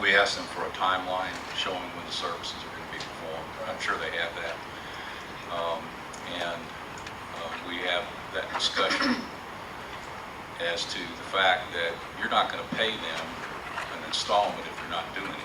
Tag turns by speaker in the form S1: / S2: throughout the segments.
S1: we asked them for a timeline showing when the services are going to be performed. I'm sure they have that. Um, And uh, we have that discussion as to the fact that you're not going to pay them an installment if you're not doing anything.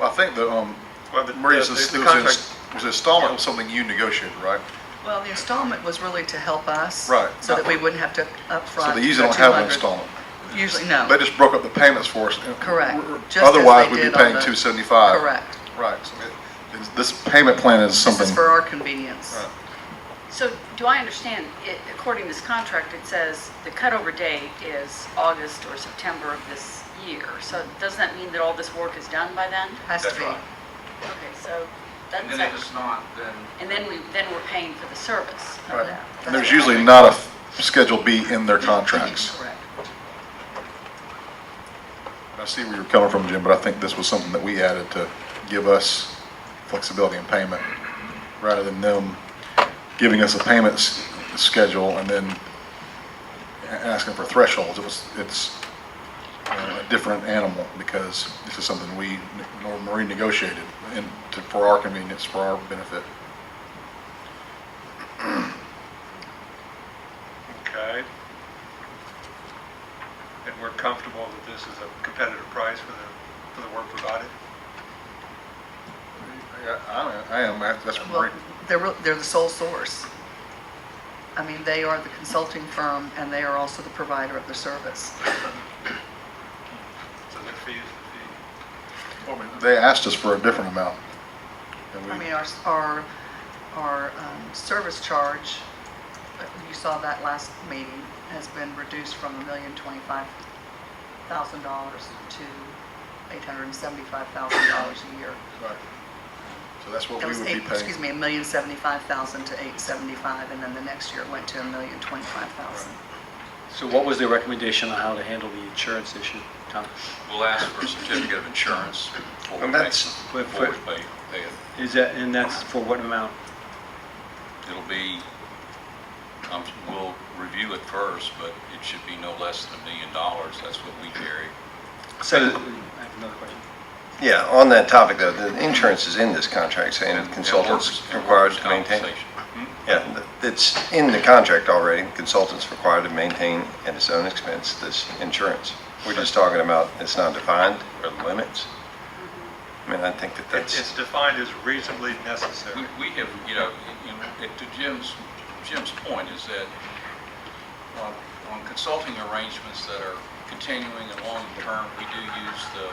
S2: Well, I think the, um,
S3: Well, the-
S2: Maria's,
S3: the-
S2: was
S3: the
S2: inst-
S3: contract-
S2: was installment was something you negotiated, right?
S4: Well, the installment was really to help us.
S2: Right.
S4: So that we wouldn't have to upfront.
S2: So they usually
S4: the
S2: don't have an
S4: 200.
S2: installment.
S4: Usually, no.
S2: They just broke up the payments for us.
S4: Correct. Just as
S2: Otherwise,
S4: they
S2: we'd be
S4: did on
S2: paying
S4: the-
S2: two seventy-five.
S4: Correct.
S2: Right, so it- this payment plan is something.
S4: This is for our convenience.
S2: Right.
S5: So do I understand, it- according to this contract, it says the cutover date is August or September of this year. So doesn't that mean that all this work is done by then?
S4: Has to
S1: That's
S4: be.
S1: right.
S5: Okay, so
S6: And
S5: that's,
S6: then if it's not, then
S5: and then we, then we're paying for the service.
S2: Right.
S4: That's
S2: And there's
S4: right.
S2: usually not a f- Schedule B in their contracts.
S4: Correct.
S2: I see where you're coming from, Jim, but I think this was something that we added to give us flexibility in payment, rather than them giving us a payment s- schedule and then a- asking for thresholds. It was, it's you know, a different animal, because this is something we, ne- nor- Marie negotiated, and to- for our convenience, for our benefit.
S3: Okay. And we're comfortable that this is a competitive price for the, for the work provided?
S2: I I am, that's what
S4: Well,
S2: Marie.
S4: they're, real- they're the sole source. I mean, they are the consulting firm and they are also the provider of the service.
S3: So the fee is the
S2: They asked us for a different amount. and we-
S4: I mean, our, our, our um, service charge, uh, you saw that last meeting, has been reduced from a million twenty-five thousand dollars to eight hundred and seventy-five thousand dollars a year.
S2: Right. So that's what
S4: That
S2: we
S4: was
S2: would
S4: eight,
S2: be paying.
S4: excuse me, a million seventy-five thousand to eight seventy-five, and then the next year it went to a million twenty-five thousand.
S7: So what was the recommendation on how to handle the insurance issue, Tom?
S1: We'll ask for a certificate of insurance before we
S2: And
S1: pay,
S2: that's-
S1: before we pay pay it.
S7: Is that, and that's for what amount?
S1: It'll be, um, we'll review it first, but it should be no less than a million dollars. That's what we carry.
S7: So, I have another question.
S8: Yeah, on that topic though, the insurance is in this contract saying
S1: And
S8: consultants
S1: workers- and
S8: required
S1: workers'
S8: to maintain.
S1: compensation.
S8: Yeah, th- it's in the contract already, consultants required to maintain at his own expense this insurance. We're just talking about it's not defined or the limits. I mean, I think that
S3: fee. It's
S8: that's,
S3: it's defined as reasonably necessary.
S1: We we have, you know, in- in- to Jim's, Jim's point is that on- on consulting arrangements that are continuing and long-term, we do use the,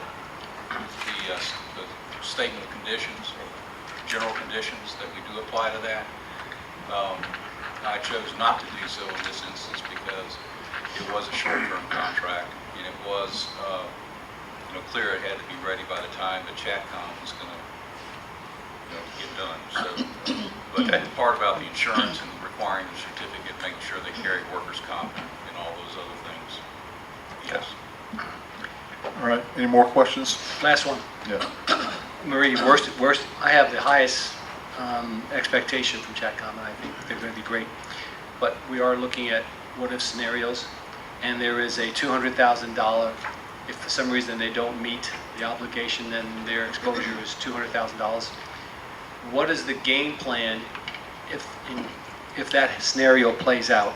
S1: the uh, s- the statement of conditions, or general conditions, that we do apply to that. Um, I chose not to do so in this instance because it was a short-term contract, and it was, uh, you know, clear it had to be ready by the time the ChatCom was going to you know, get done, so. But the part about the insurance and requiring the certificate, making sure they carry workers' comp and all those other things. Yes.
S2: All right, any more questions?
S7: Last one.
S2: Yeah.
S7: Marie, worst, worst, I have the highest um, expectation from Chatcom, and I think they're going to be great. But we are looking at what-if scenarios, and there is a $200,000, if for some reason they don't meet the obligation, then their exposure is $200,000. What is the game plan if, if that scenario plays out,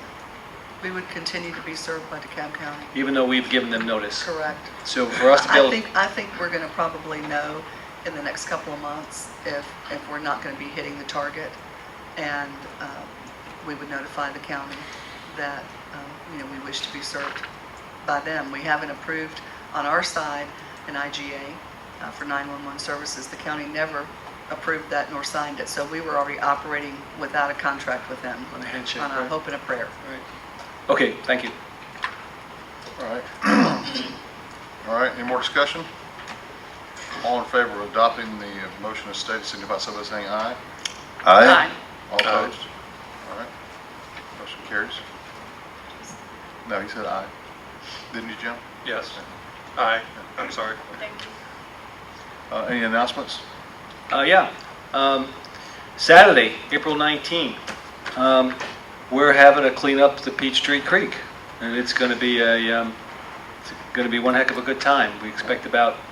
S4: We would continue to be served by DeKalb County,
S7: even though we've given them notice?
S4: correct?
S7: So for us to be
S4: I
S7: able,
S4: think, I think we're going to probably know in the next couple of months if, if we're not going to be hitting the target. And um, we would notify the county that, um, you know, we wish to be served by them. We haven't approved on our side an IGA uh, for 911 services. The county never approved that nor signed it. So we were already operating without a contract with them.
S7: On a handshake,
S4: On a
S7: right.
S4: hope and a prayer.
S7: Right. okay, thank you.
S2: All right. All right, any more discussion? All in favor of adopting the motion as stated, signify so by saying aye.
S8: I,
S2: All opposed? All right, motion carries. No, he said aye. Didn't you, Jim?
S3: Yes. Aye, I'm sorry.
S5: Thank you.
S2: Uh, Any announcements?
S7: Uh, yeah. Um, Saturday, April 19th, um, we're having to clean up the Peachtree Creek, and it's going to be a, um, it's going to be one heck of a good time. We expect about